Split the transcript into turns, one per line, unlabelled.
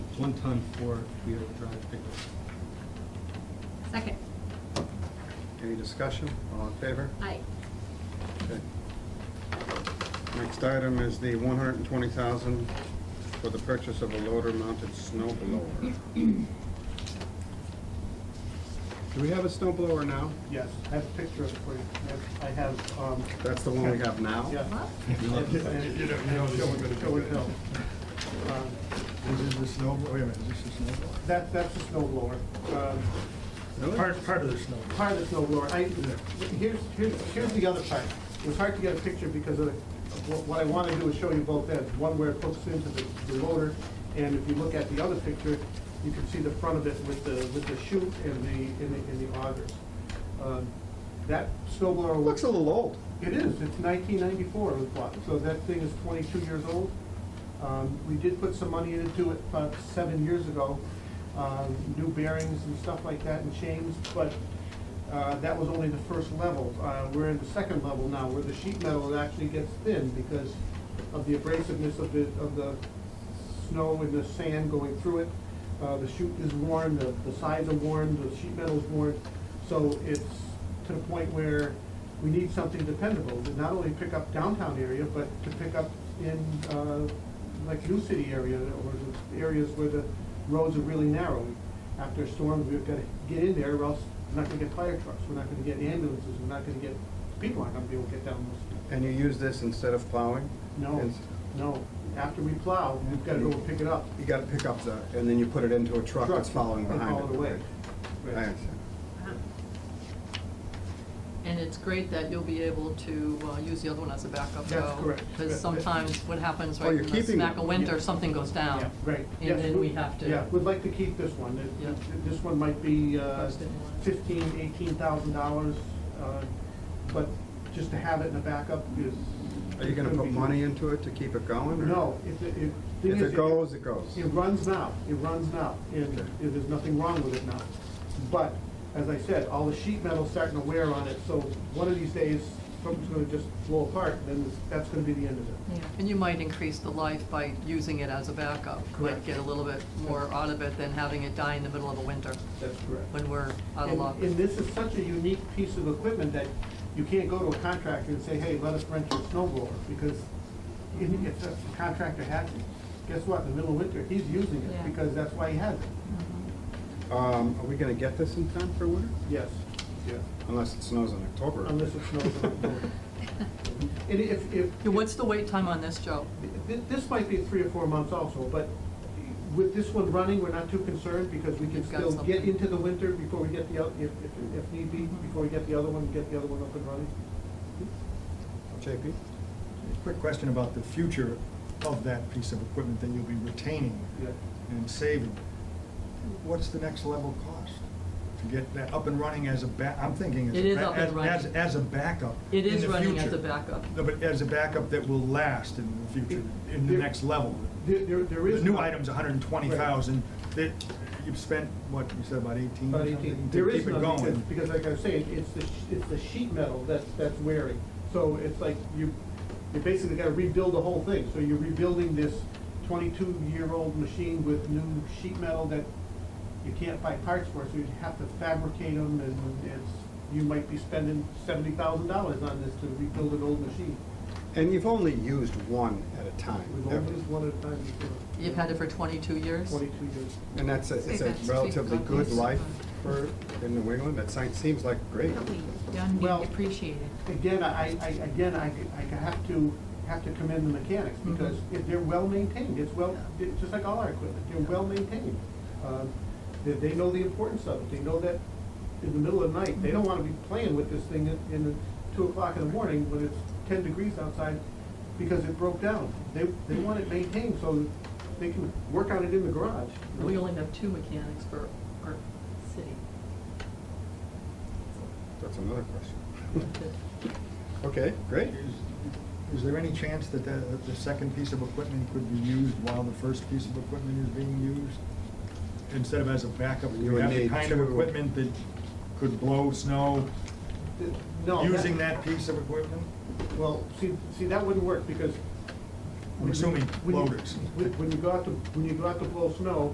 one-ton four-wheel drive pickup.
Second.
Any discussion? All in favor?
Aye.
Okay. Next item is the one hundred and twenty thousand for the purchase of a loader-mounted snow blower. Do we have a snow blower now?
Yes, I have a picture of it for you. I have- I have, um,
That's the one we have now?
yeah.
Well,
You know, you know,
Is this the snow, wait a minute, is this the snow blower?
Um, That, that's a snow blower. Um,
Really?
Part, part of the snow. blower.
Part of the snow blower, I, here's, here's, here's the other part. It was hard to get a picture because of, the- what- what I want to do is show you both ends. One where it hooks into the, the loader, and if you look at the other picture, you can see the front of it with the, with the chute and the, and the, and the augers. Um, That snow blower.
It Looks a little old.
It is, it's nineteen ninety-four, so that thing is twenty-two years old. Um, we did put some money into it about seven years ago, um, new bearings and stuff like that and chains, but, uh, that was only the first level. Uh, we're in the second level now, where the sheet metal actually gets thin because of the abrasiveness of the, of the snow and the sand going through it. Uh, the chute is worn, the, the sides are worn, the sheet metal's worn, so it's to the point where we need something dependable to not only pick up downtown area, but to pick up in, uh, like New City area, or the areas where the roads are really narrow. After storms, we've gotta get in there, or else we're not gonna get fire trucks, we're not gonna get ambulances, we're not gonna get, people aren't gonna be able to get down those.
And you use this instead of plowing?
No,
It's-
no, after we plow, we've gotta go and pick it up.
You gotta pick up the, and then you put it into a truck that's following
and
behind it.
haul it away.
I
Right.
understand.
uh-huh.
And it's great that you'll be able to uh, use the other one as a backup though.
That's correct.
Because sometimes what happens,
Oh,
right,
you're
in the
keeping
smack
it.
of winter,
Yeah.
something goes down.
Yeah, Right. Yes,
Oh. And then we have to.
Yeah, we'd like to keep this one. It-
Yeah.
it- This one might be uh,
Post it.
fifteen, eighteen thousand dollars, uh, but just to have it in a backup is.
Are you gonna
couldn't be-
put money into it to keep it going? or-
No, if it, if. thing
If
is,
it goes, it goes.
It runs now, it runs now, and
Okay.
and there's nothing wrong with it now. But, as I said, all the sheet metal's starting to wear on it, so one of these days, something's gonna just blow apart, then that's gonna be the end of it.
Yeah, And you might increase the life by using it as a backup.
Correct.
Might get a little bit more out of it than having it die in the middle of a winter
That's correct.
when we're out of
And-
luck.
And this is such a unique piece of equipment that you can't go to a contractor and say, hey, let us rent your snow blower, because if if the contractor has it, guess what, in the middle of winter, he's using it,
Yeah.
because that's why he has it.
Um, are we gonna get this in time for winter?
Yes, yes.
Unless it snows in October.
Unless it snows in October. And if, if.
Yeah, What's the wait time on this, Joe?
Th- This might be three or four months also, but with this one running, we're not too concerned because we can
You've got
still get
something. Mm-hmm.
into the winter before we get the, oth- if, if, if need be, before we get the other one, get the other one up and running.
JP?
Quick question about the future of that piece of equipment that you'll be retaining
Yeah.
and saving. What's the next level cost to get that up and running as a ba, I'm thinking as. a
It is
ba-
up and
as-
running.
As, as a backup.
It
in
is
the
running as
future.
a backup.
No, but as a backup that will last in the future, in the
There-
next level.
There, there- there
The
is.
new
not-
item's hundred and twenty thousand, that, you've spent, what, you said about eighteen? or
About
something
eighteen,
to
there
keep
is
it
none, because,
going.
because like I was saying, it's the, sh- it's the sheet metal that's, that's wearing. So it's like you, you basically gotta rebuild the whole thing, so you're rebuilding this twenty-two-year-old machine with new sheet metal that you can't find parts for, so you have to fabricate them, and it's, you might be spending seventy thousand dollars on this to rebuild an old machine.
And you've only used one at a time,
We've
ever.
only used one at a time before.
You've had it for 22 years?
Twenty-two years.
and that's a, it's a
Save that.
relatively
Save
good
copies.
life for, in New England, it si- seems like great.
Really, done
Well-
being appreciated.
Again, I, I, again, I, I have to, have to commend the mechanics,
Mm-hmm.
because if they're well-maintained, it's well, it's just like all our equipment, they're well-maintained. Um, They, they know the importance of it, they know that in the middle of the night,
Mm-hmm.
they don't wanna be playing with this thing in, in the two o'clock in the morning when it's ten degrees outside, because it broke down. They, they want it maintained, so they can work on it in the garage. you know?
We only have two mechanics for our city.
That's another question. Okay, great.
Is- Is there any chance that the, that the second piece of equipment could be used while the first piece of equipment is being used? Instead of as a backup,
You
you
would
have the
need
kind of
two.
equipment that could blow snow
Th- No.
using that piece of equipment?
Well, see, see, that wouldn't work, because
I'm assuming
When you-
loaders.
When when you go out to, when you go out to blow snow,